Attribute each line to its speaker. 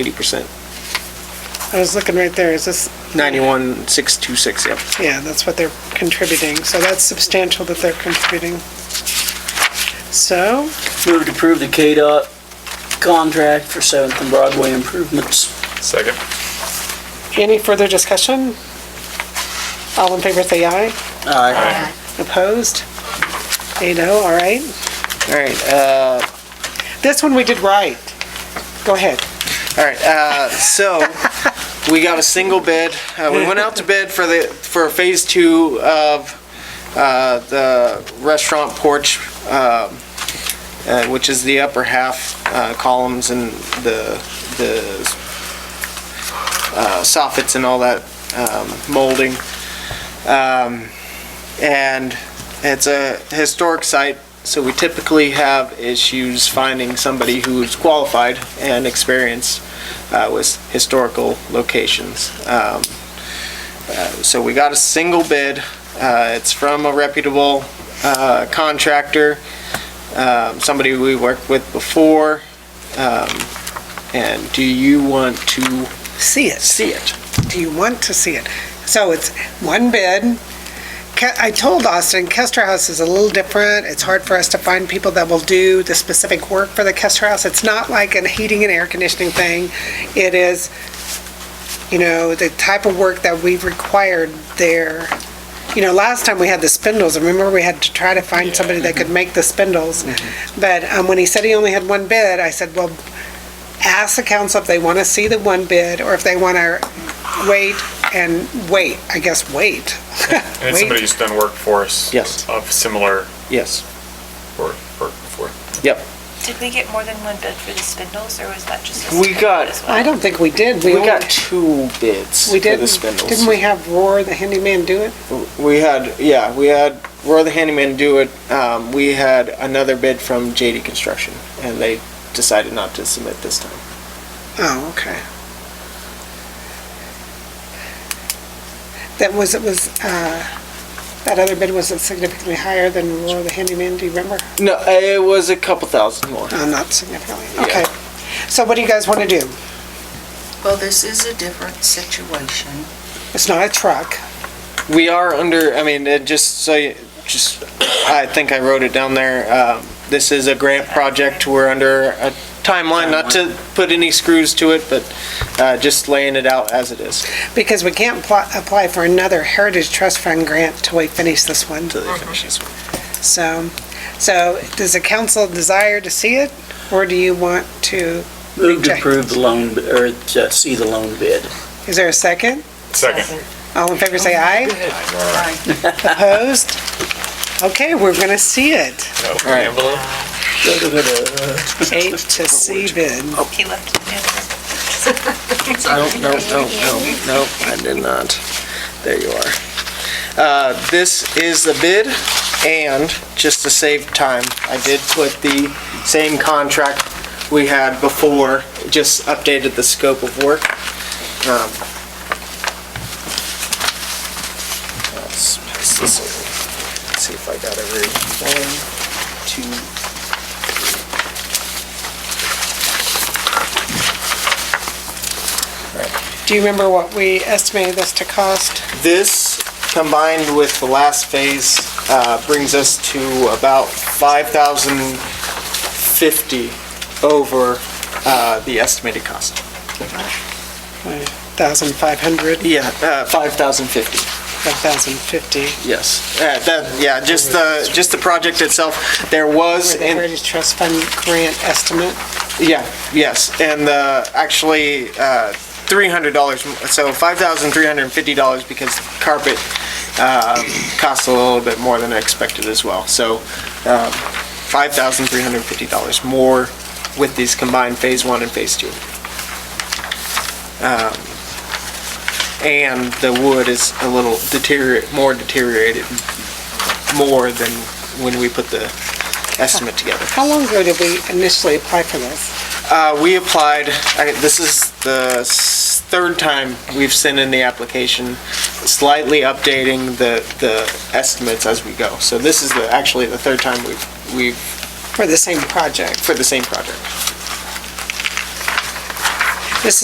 Speaker 1: eighty percent.
Speaker 2: I was looking right there, is this,
Speaker 1: Ninety-one, six, two, six, yep.
Speaker 2: yeah, that's what they're contributing, so that's substantial that they're contributing. So,
Speaker 3: Move to approve the KDOT contract for 7th and Broadway improvements.
Speaker 4: Second.
Speaker 2: any further discussion? All in favor, say aye.
Speaker 3: Aye.
Speaker 2: Opposed? Eight oh, all right.
Speaker 5: All right, uh,
Speaker 2: This one we did right. Go ahead.
Speaker 5: all right, uh, so, we got a single bid, uh, we went out to bid for the, for phase two of, uh, the restaurant porch, um, uh, which is the upper half, uh, columns and the, the, uh, soffits and all that, um, molding. Um, and it's a historic site, so we typically have issues finding somebody who's qualified and experienced uh, with historical locations. Um, uh, So we got a single bid. Uh, It's from a reputable uh, contractor, um, somebody we worked with before. Um, And do you want to
Speaker 2: See it.
Speaker 5: see it?
Speaker 2: Do you want to see it? So it's one bid. Ke- I told Austin, Kester House is a little different. It's hard for us to find people that will do the specific work for the Kester House. It's not like a heating and air conditioning thing. It is, you know, the type of work that we've required there. You know, last time we had the spindles, remember we had to try to find somebody that could make the spindles. But um, when he said he only had one bid, I said, well, ask the council if they want to see the one bid or if they want to wait and wait, I guess wait.
Speaker 4: And it's
Speaker 2: Wait.
Speaker 4: somebody who's done work for us.
Speaker 5: Yes.
Speaker 4: Of similar
Speaker 5: Yes.
Speaker 4: work, work before.
Speaker 6: Did we get more than one bid for the spindles, or was that just? a
Speaker 5: We
Speaker 6: spindle
Speaker 5: got-
Speaker 6: as well?
Speaker 2: I don't think we did.
Speaker 5: We
Speaker 2: only-
Speaker 5: got two bids for
Speaker 2: We
Speaker 5: the
Speaker 2: didn't,
Speaker 5: spindles.
Speaker 2: didn't we have Roar, the handyman, do it?
Speaker 5: We had, yeah, we had Roy the Handyman do it. Um, we had another bid from JD Construction, and they decided not to submit this time.
Speaker 2: Oh, okay. That was, it was, uh, that other bid was significantly higher than Roar, the handyman, do you remember?
Speaker 5: No, it was a couple thousand more.
Speaker 2: No, not significantly,
Speaker 5: Yeah.
Speaker 2: okay. So what do you guys want to do?
Speaker 7: Well, this is a different situation.
Speaker 2: It's not a truck.
Speaker 5: We are under, I mean, it just so you, just, I think I wrote it down there. Um, this is a grant project. We're under a timeline, not to put any screws to it, but uh, just laying it out as it is.
Speaker 2: Because we can't pl- apply for another Heritage Trust Fund grant till we finish this one.
Speaker 5: Until they finish this one.
Speaker 2: So, so does the council desire to see it, or do you want to,
Speaker 3: Move to
Speaker 2: Reject.
Speaker 3: approve the loan, or to see the loan bid.
Speaker 2: is there a second?
Speaker 4: Second.
Speaker 2: All in favor, say aye.
Speaker 7: Right.
Speaker 2: Opposed? Okay, we're gonna see it.
Speaker 4: Open
Speaker 5: All right.
Speaker 4: envelope.
Speaker 2: Eight to C bid.
Speaker 6: He left it in.
Speaker 5: I don't, no, no, no, no, I did not. There you are. Uh, This is the bid, and just to save time, I did put the same contract we had before, just updated the scope of work. Um, let's pass this over. See if I got every, one, two,
Speaker 2: Do you remember what we estimated this to cost?
Speaker 5: This, combined with the last phase, uh, brings us to about 5,050 over uh, the estimated cost.
Speaker 2: Thousand five hundred,
Speaker 5: Yeah, uh, 5,050,
Speaker 2: one thousand fifty.
Speaker 5: yes. Uh, that- Yeah, just the, just the project itself, there was,
Speaker 2: For the
Speaker 5: in-
Speaker 2: Heritage Trust Fund grant estimate.
Speaker 5: yeah, yes, and uh, actually, uh, $300, m- so $5,350 because carpet um, costs a little bit more than I expected as well. So um, $5,350 more with these combined Phase 1 and Phase 2. Um, And the wood is a little deteriorate, more deteriorated, more than when we put the estimate together.
Speaker 2: How long ago did we initially apply for this?
Speaker 5: Uh, we applied, I- this is the s- third time we've sent in the application, slightly updating the, the estimates as we go. So this is the, actually the third time we've, we've,
Speaker 2: For the same project?
Speaker 5: for the same project.